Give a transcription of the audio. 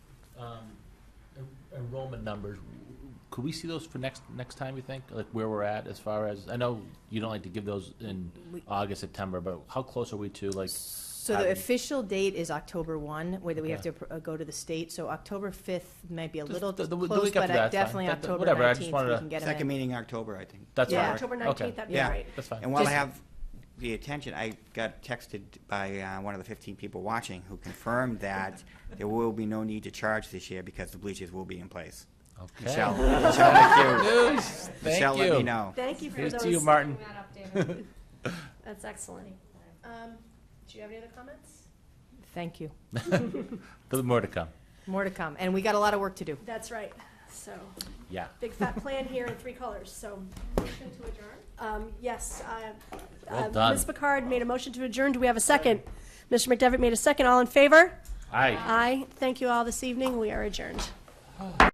um, enrollment numbers, could we see those for next, next time, you think? Like where we're at as far as, I know you don't like to give those in We- August, September, but how close are we to like? So the having- official date is October 1, whether we have to Okay. uh, go to the state, so October 5th might be a Just little the- the- the close, week after but that, I- it's fine. definitely That- that- October whatever, I just 19th, wanted we to- can get them Second in. meeting, October, I think. That's Yeah. fine. October Okay. 19th, that'd be Yeah. great. That's fine. And while I Just- have the attention, I got texted by uh, one of the 15 people watching who confirmed that there will be no need to charge this year because the bleachers will be in place. Okay. Michelle, Michelle, thank you. News. Thank Michelle, you. let me know. Thank you for Here's those. to you, Martin. That's excellent. Um, do you have any other comments? Thank you. There's more to come. More to come, and we got a lot of work to do. That's right. So, Yeah. big fat plan here in three colors, so. Motion to adjourn? Um, yes, uh, Well uh, done. Ms. Picard made a motion to adjourn. Do we have a second? Mr. McDevitt made a second. All in favor? Aye. Aye. Thank you all this evening. We are adjourned.